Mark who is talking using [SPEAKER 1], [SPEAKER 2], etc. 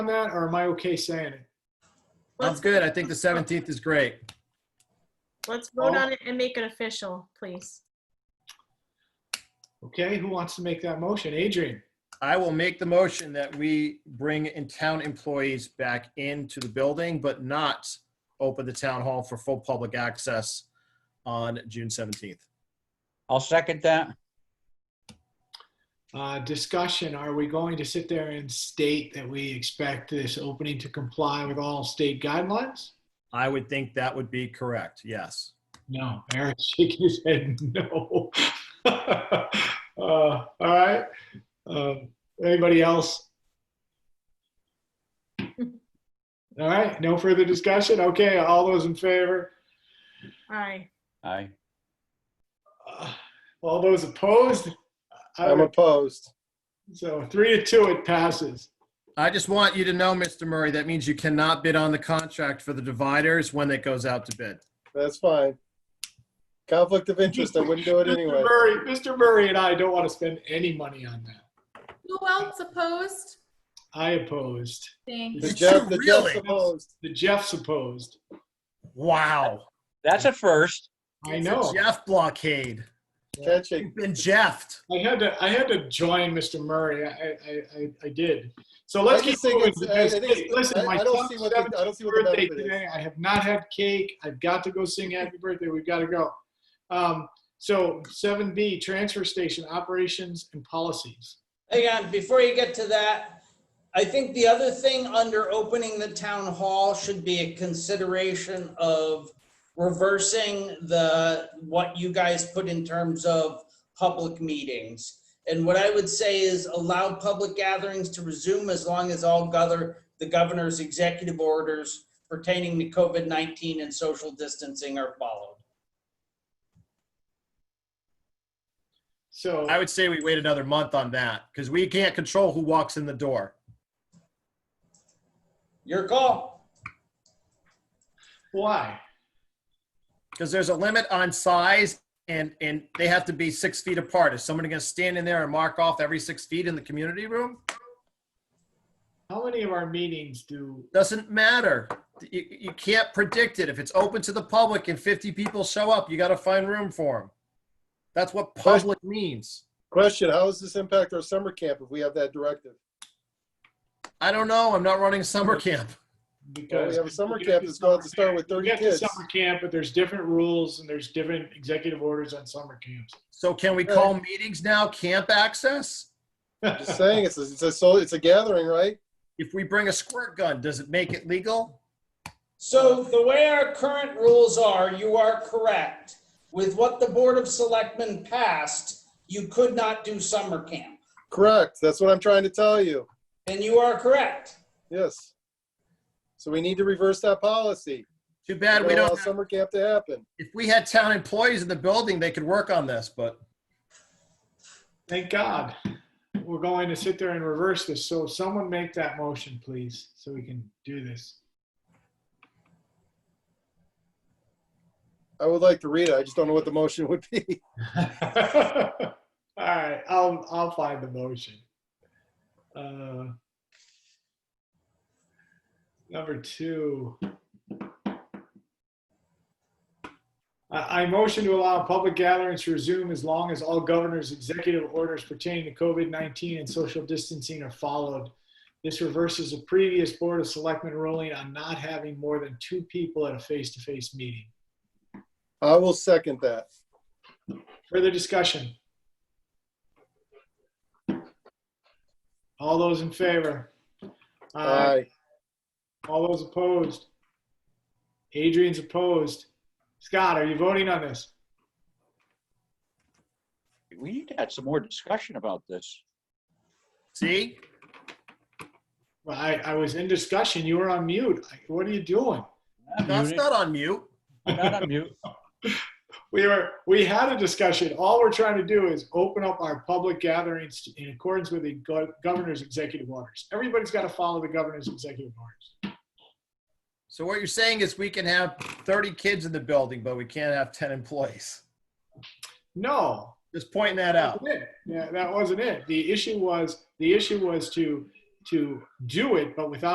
[SPEAKER 1] on that, or am I okay saying it?
[SPEAKER 2] I'm
[SPEAKER 3] Let's,
[SPEAKER 2] good. I think the 17th is great.
[SPEAKER 3] let's vote on it and make it official, please.
[SPEAKER 1] Okay, who wants to make that motion? Adrian,
[SPEAKER 2] I will make the motion that we bring in town employees back into the building, but not open the town hall for full public access on June 17th.
[SPEAKER 4] I'll second that.
[SPEAKER 1] uh, discussion, are we going to sit there and state that we expect this opening to comply with all state guidelines?
[SPEAKER 2] I would think that would be correct. Yes.
[SPEAKER 1] No, Eric's shaking his head no. Uh, All right. Um, Anybody else? All right, no further discussion? Okay, all those in favor?
[SPEAKER 3] Aye.
[SPEAKER 4] Aye.
[SPEAKER 1] Uh, All those opposed? I
[SPEAKER 5] I'm
[SPEAKER 1] would-
[SPEAKER 5] opposed.
[SPEAKER 1] So three to two, it passes.
[SPEAKER 2] I just want you to know, Mr. Murray, that means you cannot bid on the contract for the dividers when it goes out to bid.
[SPEAKER 5] That's fine. Conflict of interest. I wouldn't do it
[SPEAKER 1] Mr.
[SPEAKER 5] anyway.
[SPEAKER 1] Murray, Mr. Murray and I don't want to spend any money on that.
[SPEAKER 6] Who else opposed?
[SPEAKER 1] I opposed.
[SPEAKER 6] Thank
[SPEAKER 5] The
[SPEAKER 6] you.
[SPEAKER 2] Did
[SPEAKER 5] Jeff,
[SPEAKER 2] you
[SPEAKER 5] the Jeff's
[SPEAKER 2] really?
[SPEAKER 5] opposed.
[SPEAKER 1] The Jeffs opposed.
[SPEAKER 2] Wow.
[SPEAKER 4] That's a first.
[SPEAKER 1] I know.
[SPEAKER 2] Jeff blockade.
[SPEAKER 5] Catching.
[SPEAKER 2] Been Jeffed.
[SPEAKER 1] I had to, I had to join Mr. Murray. I, I, I, I did. So
[SPEAKER 5] I
[SPEAKER 1] let's keep
[SPEAKER 5] just think
[SPEAKER 1] moving.
[SPEAKER 5] it's- I- I
[SPEAKER 1] because,
[SPEAKER 5] think
[SPEAKER 1] hey,
[SPEAKER 5] it's-
[SPEAKER 1] Listen,
[SPEAKER 5] I-
[SPEAKER 1] my
[SPEAKER 5] I don't see what
[SPEAKER 1] son's
[SPEAKER 5] the- I don't see what the
[SPEAKER 1] birthday
[SPEAKER 5] benefit is.
[SPEAKER 1] today. I have not had cake. I've got to go sing happy birthday. We've got to go. Um, so seven B, transfer station operations and policies.
[SPEAKER 7] Hang on, before you get to that, I think the other thing under opening the town hall should be a consideration of reversing the, what you guys put in terms of public meetings. And what I would say is allow public gatherings to resume as long as all gather, the governor's executive orders pertaining to COVID-19 and social distancing are followed.
[SPEAKER 1] So.
[SPEAKER 2] I would say we wait another month on that because we can't control who walks in the door.
[SPEAKER 7] Your call.
[SPEAKER 1] Why?
[SPEAKER 2] because there's a limit on size and and they have to be six feet apart. Is somebody going to stand in there and mark off every six feet in the community room?
[SPEAKER 1] How many of our meetings do,
[SPEAKER 2] Doesn't matter. You, you can't predict it. If it's open to the public and 50 people show up, you got to find room for them. That's what public means.
[SPEAKER 5] Question, how does this impact our summer camp if we have that directive?
[SPEAKER 2] I don't know. I'm not running summer camp.
[SPEAKER 1] because.
[SPEAKER 5] we have a summer camp that's going to start with 30
[SPEAKER 1] We get to
[SPEAKER 5] kids.
[SPEAKER 1] Summer camp, but there's different rules and there's different executive orders on summer
[SPEAKER 2] So can we call meetings now camp access?
[SPEAKER 5] Just
[SPEAKER 1] camps.
[SPEAKER 5] saying, it's a, it's a, so it's a gathering, right?
[SPEAKER 2] If we bring a squirt gun, does it make it legal?
[SPEAKER 7] So the way our current rules are, you are correct. With what the Board of Selectmen passed, you could not do summer camp.
[SPEAKER 5] Correct. That's what I'm trying to tell you.
[SPEAKER 7] And you are correct.
[SPEAKER 5] Yes. So we need to reverse that policy.
[SPEAKER 2] Too bad we
[SPEAKER 5] Don't allow
[SPEAKER 2] don't. have-
[SPEAKER 5] Summer camp to happen.
[SPEAKER 2] If we had town employees in the building, they could work on this, but
[SPEAKER 1] Thank God. We're going to sit there and reverse this. So someone make that motion, please, so we can do this.
[SPEAKER 5] I would like to read it. I just don't know what the motion would be.
[SPEAKER 1] All right, I'll, I'll find the motion. Uh, Number two. I, I motion to allow public gatherings to resume as long as all governor's executive orders pertaining to COVID-19 and social distancing are followed. This reverses a previous Board of Selectmen ruling on not having more than two people at a face-to-face meeting.
[SPEAKER 5] I will second that.
[SPEAKER 1] Further discussion? All those in favor? Aye.
[SPEAKER 5] Aye.
[SPEAKER 1] All those opposed? Adrian's opposed. Scott, are you voting on this?
[SPEAKER 4] We need to have some more discussion about this.
[SPEAKER 2] see,
[SPEAKER 1] Well, I, I was in discussion. You were on mute. I- What are you doing?
[SPEAKER 2] That's not on mute.
[SPEAKER 4] Not on mute.
[SPEAKER 1] We were, we had a discussion. All we're trying to do is open up our public gatherings in accordance with the go- governor's executive orders. Everybody's got to follow the governor's executive orders.
[SPEAKER 2] So what you're saying is we can have 30 kids in the building, but we can't have 10 employees.
[SPEAKER 1] No,
[SPEAKER 2] Just pointing that
[SPEAKER 1] That
[SPEAKER 2] out.
[SPEAKER 1] wasn't it. Yeah, that wasn't it. The issue was, the issue was to, to do it, but without